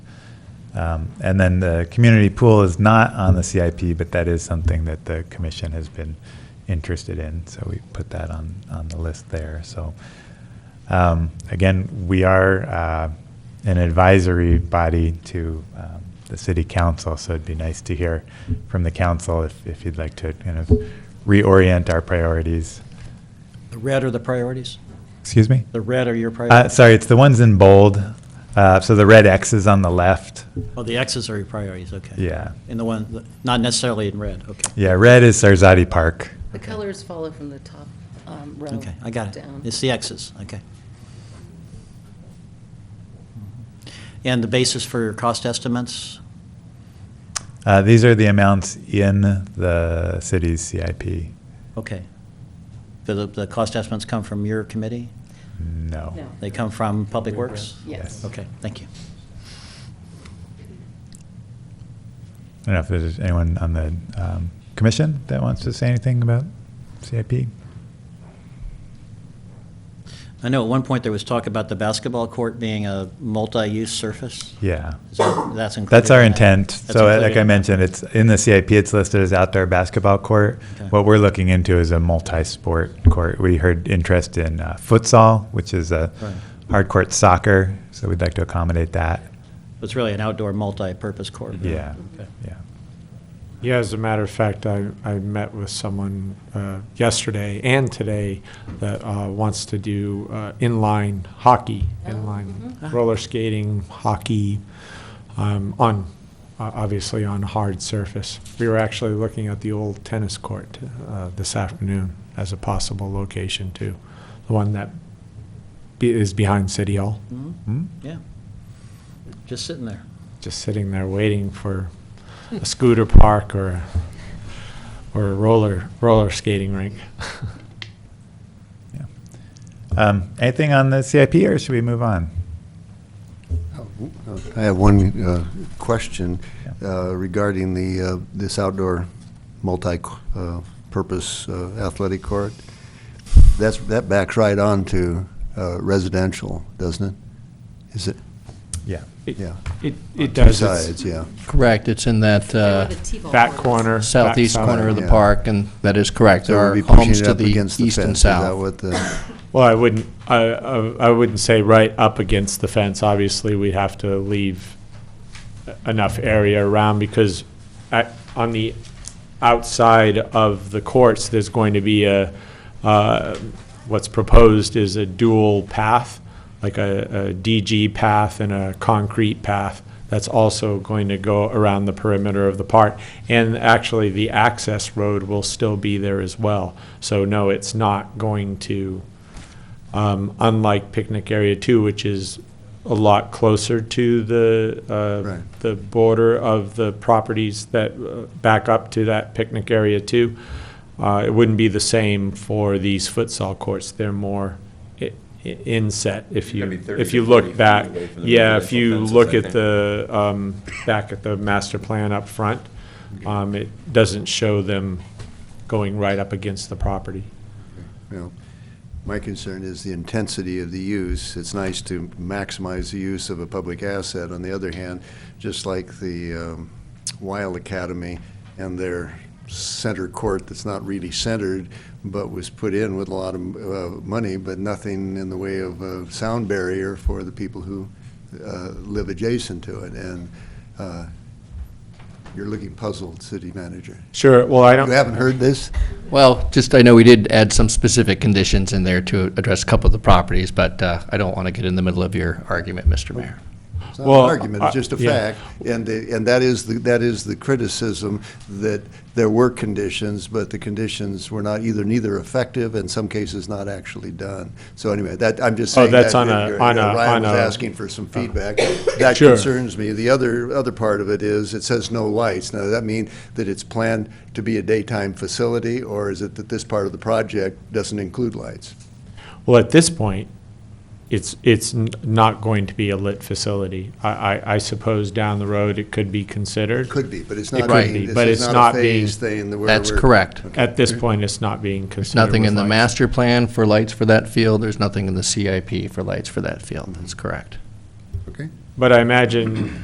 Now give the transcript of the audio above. Um, And then the community pool is not on the CIP, but that is something that the commission has been interested in, so we put that on, on the list there, so. um, Again, we are uh, an advisory body to um, the city council, so it'd be nice to hear from the council if, if you'd like to kind of reorient our priorities. The red are the priorities? Excuse me? The red are your Uh, priorities? Sorry, it's the ones in bold, Uh, so the red X is on the left, Oh, the X's are your priorities, okay. yeah. And the one, not necessarily in red, okay. Yeah, red is Sarzati Park. The colors follow from the top um, row down. Okay, I got it. It's the X's, okay. Mm-hmm. And the basis for your cost estimates? Uh, these are the amounts in the city's CIP. Okay. Do the, the cost estimates come from your committee? No. No. They come from Public Works? Yes. Yes. Okay, thank you. I don't know if there's anyone on the um, commission that wants to say anything about CIP. I know at one point there was talk about the basketball court being a multi-use surface. Yeah. Is that- That's included? That's our in that? intent. That's So uh, included like I in that? mentioned, it's in the CIP, it's listed as outdoor basketball court. Okay. What we're looking into is a multi-sport court. We heard interest in uh, futsal, which is a Right. hard court soccer, so we'd like to accommodate that. It's really an outdoor multi-purpose court. Yeah, Okay. yeah. Yeah, as a matter of fact, I, I met with someone uh, yesterday and today that uh, wants to do uh, inline hockey, Oh, inline mhm. roller skating, hockey, um, on, uh, obviously on hard surface. We were actually looking at the old tennis court uh, this afternoon as a possible location too, the one that be- is behind City Hall, Mhm. Hmm? Yeah. Just sitting there. just sitting there waiting for a scooter park or a or a roller, roller skating rink. Yeah. Um, anything on the CIP, or should we move on? I have one uh, question Yeah. uh, regarding the, uh, this outdoor multi-purpose uh, athletic court. That's, that backs right on to uh, residential, doesn't it? Is it? Yeah. Yeah. It, it Two does. It's sides, yeah. Correct, it's in that uh, Back corner. back southeast side. corner of the yeah. park, and that is correct. So There we'll are be pushing homes it to up the against the east fence. and Is that south. what the, Well, I wouldn't, I, I I wouldn't say right up against the fence. Obviously, we have to leave enough area around because at, on the outside of the courts, there's going to be a, uh, what's proposed is a dual path, like a, a DG path and a concrete path. That's also going to go around the perimeter of the park. And actually, the access road will still be there as well. So no, it's not going to, um, unlike picnic area two, which is a lot closer to the, uh, Right. the border of the properties that uh, back up to that picnic area too. Uh, it wouldn't be the same for these futsal courts. They're more i- i- inset if That'd you, be 30 if to you 40 look feet back. away from the Yeah, if residential you fences, look I at think. the, um, back at the master plan up front, um, it doesn't show them going right up against the property. you know, my concern is the intensity of the use. It's nice to maximize the use of a public asset. On the other hand, just like the um, Wild Academy and their center court that's not really centered, but was put in with a lot of uh, money, but nothing in the way of a sound barrier for the people who uh, live adjacent to it. And uh, you're looking puzzled, city manager. Sure, well, I don't. You haven't heard this? Well, just, I know we did add some specific conditions in there to address a couple of the properties, but uh, I don't want to get in the middle of your argument, Mr. Mayor. It's not Well, an argument, it's I- just a yeah. fact. And, the- and that is, the that is the criticism, that there were conditions, but the conditions were not either, neither effective, in some cases, not actually done. So anyway, that, I'm just Oh, saying that. that's on a- you're- uh, on a- Ryan on was a- uh, asking for some feedback. That Sure. concerns me. The other, other part of it is, it says no lights. Now, does that mean that it's planned to be a daytime facility, or is it that this part of the project doesn't include lights? Well, at this point, it's, it's n- not going to be a lit facility. I, I, I suppose down the road, it could be considered. Could be, but it's It not could being, be, this but is it's not not a being- phased thing. that we're- That's we're- correct. At this point, it's not being There's considered. nothing with in the lights. master plan for lights for that field, there's nothing in the CIP for lights for that field, that's correct. Okay. But I imagine